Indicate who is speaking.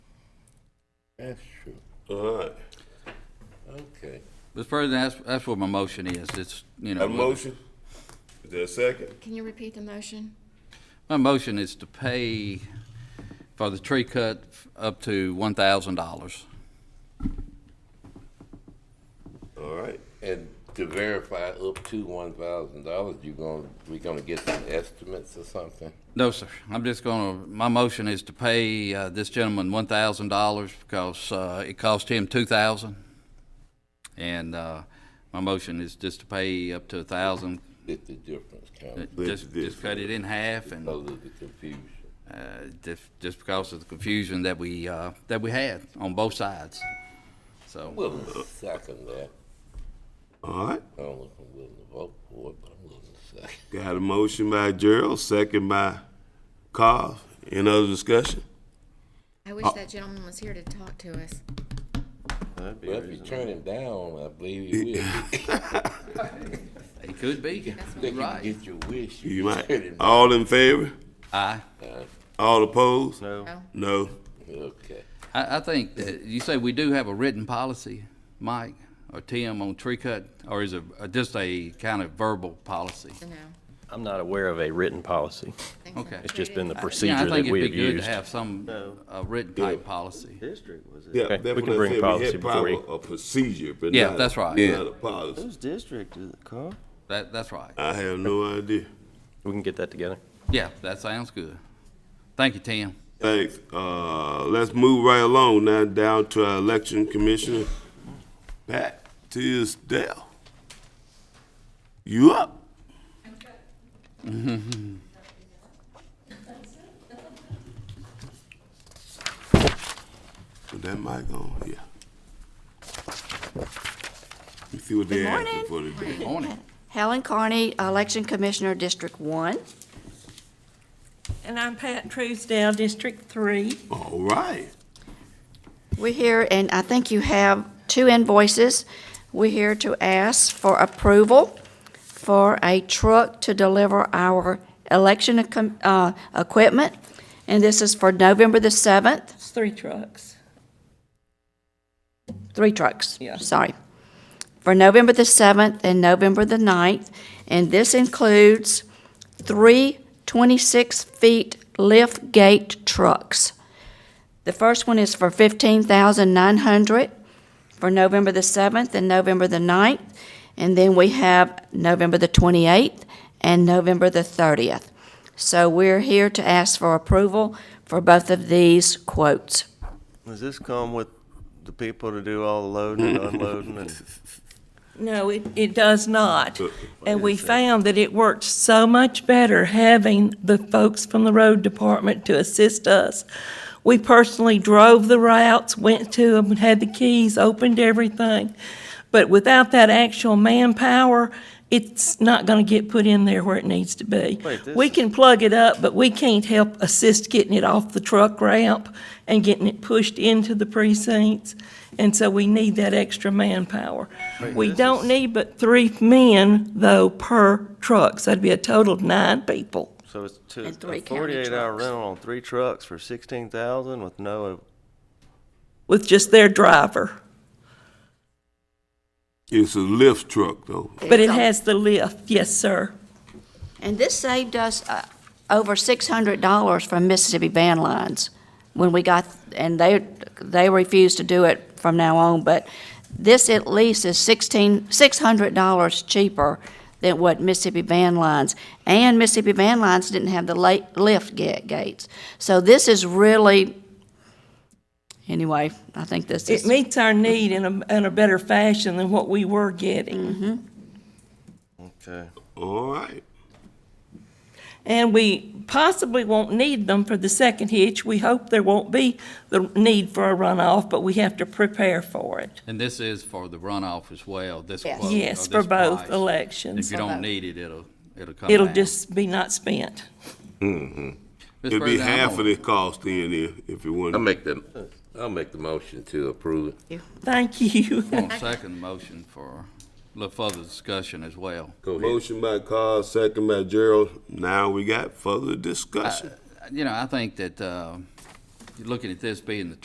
Speaker 1: That's true.
Speaker 2: All right.
Speaker 1: Okay.
Speaker 3: Mr. President, that's, that's what my motion is. It's, you know.
Speaker 2: Have a motion? Is there a second?
Speaker 4: Can you repeat the motion?
Speaker 3: My motion is to pay for the tree cut up to one thousand dollars.
Speaker 2: All right.
Speaker 1: And to verify up to one thousand dollars, you gonna, we gonna get some estimates or something?
Speaker 3: No, sir. I'm just gonna, my motion is to pay, uh, this gentleman one thousand dollars because, uh, it cost him two thousand. And, uh, my motion is just to pay up to a thousand, uh,
Speaker 1: Get the difference counted,
Speaker 3: just,
Speaker 2: this- Oh.
Speaker 3: just cut it in half and,
Speaker 1: a little confusion.
Speaker 3: uh, just, just because of the confusion that we, uh, that we had on both sides. So,
Speaker 1: Willing to second that.
Speaker 2: All right.
Speaker 1: I don't know if I'm willing to vote for it, but I'm willing to second.
Speaker 2: Got a motion by Gerald, second by Carl. Any other discussion?
Speaker 4: I
Speaker 5: Uh,
Speaker 4: wish that gentleman was here to talk to us.
Speaker 1: Well, if you turn him down, I believe you will.
Speaker 3: it could be,
Speaker 1: Think you can
Speaker 3: right?
Speaker 1: get your wish. if
Speaker 2: You
Speaker 1: turn
Speaker 2: might.
Speaker 1: him down.
Speaker 2: All in favor?
Speaker 3: Aye.
Speaker 2: All opposed?
Speaker 5: No.
Speaker 4: No.
Speaker 2: No.
Speaker 1: Okay.
Speaker 3: I, I think that you say we do have a written policy, Mike or Tim, on tree cut, or is it just a kind of verbal policy?
Speaker 4: So no.
Speaker 5: I'm not aware of a written policy.
Speaker 4: I think so.
Speaker 3: Okay.
Speaker 5: It's just been the
Speaker 3: Yeah,
Speaker 5: procedure that
Speaker 3: I think
Speaker 5: we
Speaker 3: it'd
Speaker 5: have
Speaker 3: be good to
Speaker 5: used.
Speaker 3: have some, a written type policy.
Speaker 6: district was it?
Speaker 2: Yeah,
Speaker 5: Okay,
Speaker 2: that's
Speaker 5: we
Speaker 2: what
Speaker 5: can
Speaker 2: I
Speaker 5: bring
Speaker 2: said. We
Speaker 5: policy
Speaker 2: had
Speaker 5: before we-
Speaker 2: probably A procedure, but
Speaker 3: Yeah,
Speaker 2: not-
Speaker 3: that's right.
Speaker 2: Not a policy.
Speaker 6: Whose district is it, Carl?
Speaker 3: That, that's right.
Speaker 2: I have no idea.
Speaker 5: We can get that together.
Speaker 3: Yeah, that sounds good. Thank you, Tim.
Speaker 2: Thanks. Uh, let's move right along now down to our election commissioner, Pat Tisdale. You up? Put that mic on, yeah. You see what they asking for today.
Speaker 3: Morning.
Speaker 7: Helen Carney, Election Commissioner, District One.
Speaker 8: And I'm Pat Truesdale, District Three.
Speaker 2: All right.
Speaker 7: We're here, and I think you have two invoices. We're here to ask for approval for a truck to deliver our election equi- uh, equipment, and this is for November the 7th,
Speaker 8: It's three trucks.
Speaker 7: three trucks.
Speaker 8: Yeah.
Speaker 7: Sorry. For November the 7th and November the 9th, and this includes three 26-feet lift gate trucks. The first one is for fifteen thousand nine hundred for November the seventh and November the 9th, And then we have November the twenty-eighth and November the thirtieth. So we're here to ask for approval for both of these quotes.
Speaker 6: Does this come with the people to do all the loading and unloading and?
Speaker 8: No, it, it does not. And we found that it worked so much better having the folks from the road department to assist us. We personally drove the routes, went to them, had the keys, opened everything. But without that actual manpower, it's not gonna get put in there where it needs to be.
Speaker 6: Wait, this
Speaker 8: We
Speaker 6: is-
Speaker 8: can plug it up, but we can't help assist getting it off the truck ramp and getting it pushed into the precincts. And so we need that extra manpower. We
Speaker 6: this
Speaker 8: don't
Speaker 6: is-
Speaker 8: need but three men, though, per truck, so that'd be a total of nine people.
Speaker 6: So it's two,
Speaker 7: And three
Speaker 6: a
Speaker 7: county
Speaker 6: forty-eight hour
Speaker 7: trucks.
Speaker 6: rental on three trucks for sixteen thousand with no,
Speaker 8: with just their driver.
Speaker 2: It's a lift truck though.
Speaker 8: But it has the lift, yes, sir.
Speaker 7: And this saved us uh, over $600 from Mississippi Van Lines when we got, and they, they refused to do it from now on, but this at least is 16, $600 cheaper than what Mississippi Van Lines, and Mississippi Van Lines didn't have the la- lift ga- gates. So this is really, anyway, I think this
Speaker 8: It
Speaker 7: is,
Speaker 8: meets our need in a, in a better fashion than what we were
Speaker 7: Mm-hmm.
Speaker 8: getting.
Speaker 6: okay.
Speaker 2: All right.
Speaker 8: And we possibly won't need them for the second hitch. We hope there won't be the need for a runoff, but we have to prepare for it.
Speaker 3: And this is for the runoff as well, this
Speaker 7: Yes.
Speaker 3: quote. or
Speaker 8: Yes, for
Speaker 3: this
Speaker 8: both
Speaker 3: price. If
Speaker 8: elections.
Speaker 3: you don't need it, it'll, it'll come
Speaker 8: It'll
Speaker 3: down.
Speaker 8: just be not spent.
Speaker 3: Mr.
Speaker 2: It'd be
Speaker 3: President, I'm
Speaker 2: half
Speaker 3: gonna-
Speaker 2: of the cost in there if you want.
Speaker 1: I'll make the, I'll make the motion to approve it.
Speaker 8: Thank you.
Speaker 3: Want a second motion for a little further discussion as well.
Speaker 1: Go ahead.
Speaker 2: Motion by Carl, second by Gerald. Now we got further discussion.
Speaker 3: You know, I think that, uh, looking at this being the